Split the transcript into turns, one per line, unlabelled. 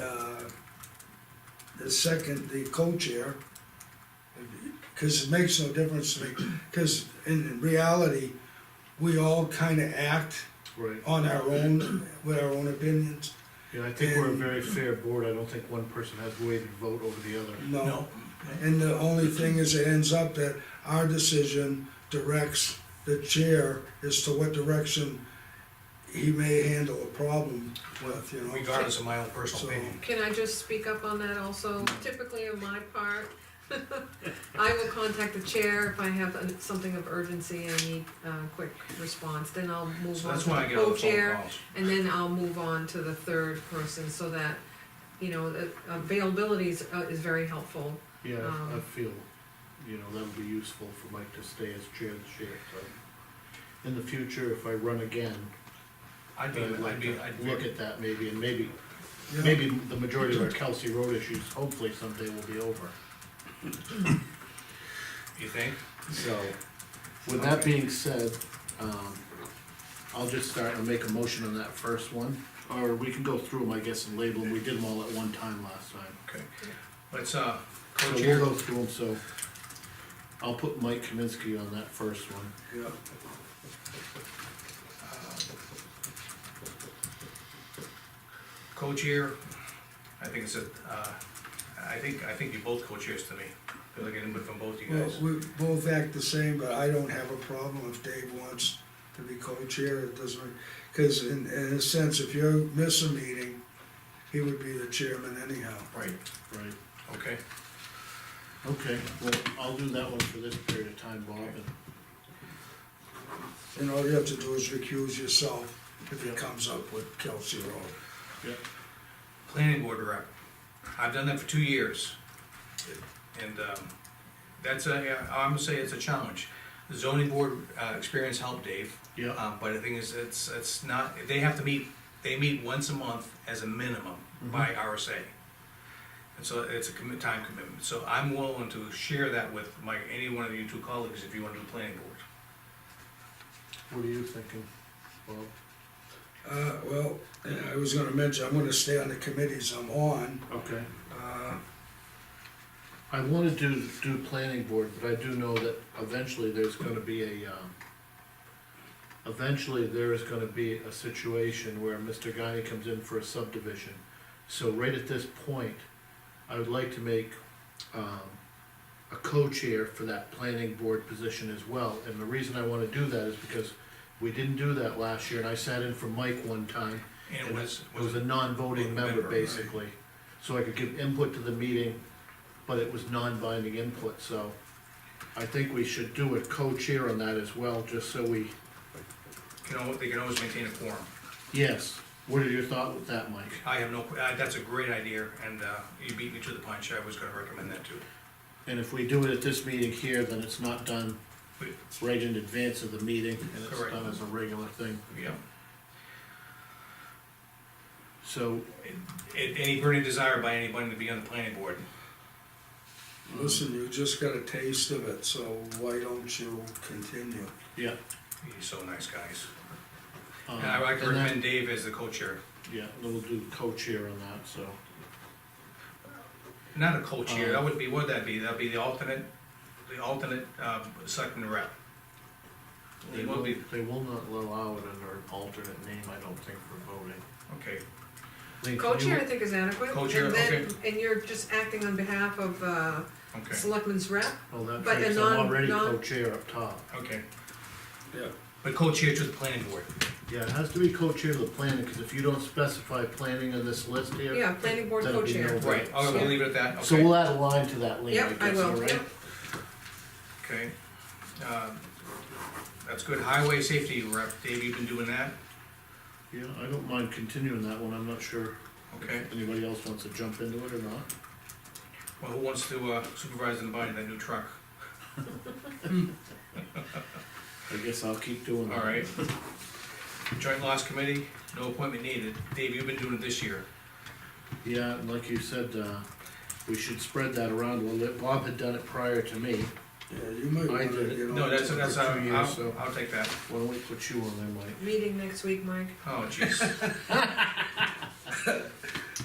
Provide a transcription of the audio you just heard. uh, the second, the co-chair, because it makes no difference to me, because in reality, we all kind of act
Right,
on our own, with our own opinions.
yeah, I think we're a very fair board, I don't think one person has weighted vote over the other.
No. And the only thing is, it ends up that our decision directs the chair as to what direction he may handle a problem with, you know.
regardless of my own personal
So-
opinion.
Can I just speak up on that also? Typically on my part, I will contact the chair if I have an- something of urgency, I need a quick response, then I'll move
So
on
that's
to
why I
the
get all the phone
co-chair.
calls.
And then I'll move on to the third person, so that, you know, the availability is, uh, is very helpful.
Yeah, I- I
Um,
feel, you know, that would be useful for Mike to stay as chair this year, so. In the future, if I run again,
I'd
I'd
be, I'd
like
be,
to
I'd
look at that maybe, and maybe,
Yeah.
maybe the majority of our Kelsey Road issues, hopefully someday will be over.
you think?
So, with that being said, um, I'll just start and make a motion on that first one, or we can go through them, I guess, and label them, we did them all at one time last time.
Okay. Let's, uh,
So we'll
co-chair,
go through them, so I'll put Mike Kaminsky on that first one.
Yeah.
co-chair, I think it's a, uh, I think, I think you're both co-chairs to me. Feel like I didn't from both you
Well,
guys.
we both act the same, but I don't have a problem if Dave wants to be co-chair, it doesn't, because in, in a sense, if you miss a meeting, he would be the chairman anyhow.
Right,
Right.
okay.
Okay, well, I'll do that one for this period of time, Bob, and
And all you have to do is recuse yourself if it comes up with Kelsey Road.
Planning board rep. I've done that for two years. And, um, that's a, I'm gonna say it's a challenge. Zoning board, uh, experience helped Dave.
Yeah,
Um, but the thing is, it's, it's not, they have to meet, they meet once a month as a minimum
Mm-hmm.
by RSA. And so it's a commit, time commitment, so I'm willing to share that with my, any one of you two colleagues if you wanna do planning board.
what are you thinking, Bob?
Uh, well, I was gonna mention, I'm gonna stay on the committees I'm on,
Okay.
uh,
Mm-hmm. I wanna do, do planning board, but I do know that eventually there's gonna be a, um, eventually there is gonna be a situation where Mr. Guy comes in for a subdivision. So right at this point, I would like to make, um, a co-chair for that planning board position as well. And the reason I wanna do that is because we didn't do that last year, and I sat in for Mike one time,
And it was,
it was a
was
non-voting
a
member,
member, right.
basically, so I could give input to the meeting, but it was non-binding input, so I think we should do a co-chair on that as well, just so we,
you know, they can always maintain a quorum.
yes, what are your thoughts with that, Mike?
I have no, uh, that's a great idea, and, uh, you beat me to the punch, I was gonna recommend that too.
And if we do it at this meeting here, then it's not done
But,
right in advance of the meeting, and it's
Correct.
done as a regular thing,
yeah,
so,
A- any burning desire by anybody to be on the planning board,
listen, you just got a taste of it, so why don't you continue?
yeah.
you're so nice, guys.
um,
And I
and then-
recommend Dave as the co-chair,
Yeah, then we'll do co-chair on that, so,
Not a co-chair, that
Um,
would be, what'd that be, that'd be the alternate, the alternate, uh, selectman rep.
they
It will
will,
be-
they will not allow it under an alternate name, I don't think, for voting.
Okay,
Lean, can you-
Co-chair, I think, is adequate.
Co-chair,
And then- And you're just acting on behalf of, uh,
okay,
selectmen's rep,
Well, that
But
makes
a
I'm
non-
already
non-
co-chair up top.
okay,
Yeah.
but co-chair to the planning board,
Yeah, it has to be co-chair of the planning, because if you don't specify planning in this list here.
yeah, planning board
That'd be
co-chair.
no-
right, oh, we'll leave it at that,
So
okay,
we'll add a line to that, Lean, I
Yep, I
guess, all
will,
right?
yep.
okay. Um, That's good, highway safety rep, Dave, you've been doing that,
Yeah, I don't mind continuing that one, I'm not sure
okay,
if anybody else wants to jump into it or not.
well, who wants to uh, supervise and buy that new truck?
I guess I'll keep doing that.
All right. Joint loss committee, no appointment needed, Dave, you've been doing it this year,
Yeah, and like you said, uh, we should spread that around a little bit. Bob had done it prior to me.
Yeah, you might
I
wanna
did it.
get on.
no, that's,
to it.
that's, I'll,
two years, so-
I'll- I'll take that,
Why don't we put you on there, Mike?
Meeting next week, Mike.
oh, jeez.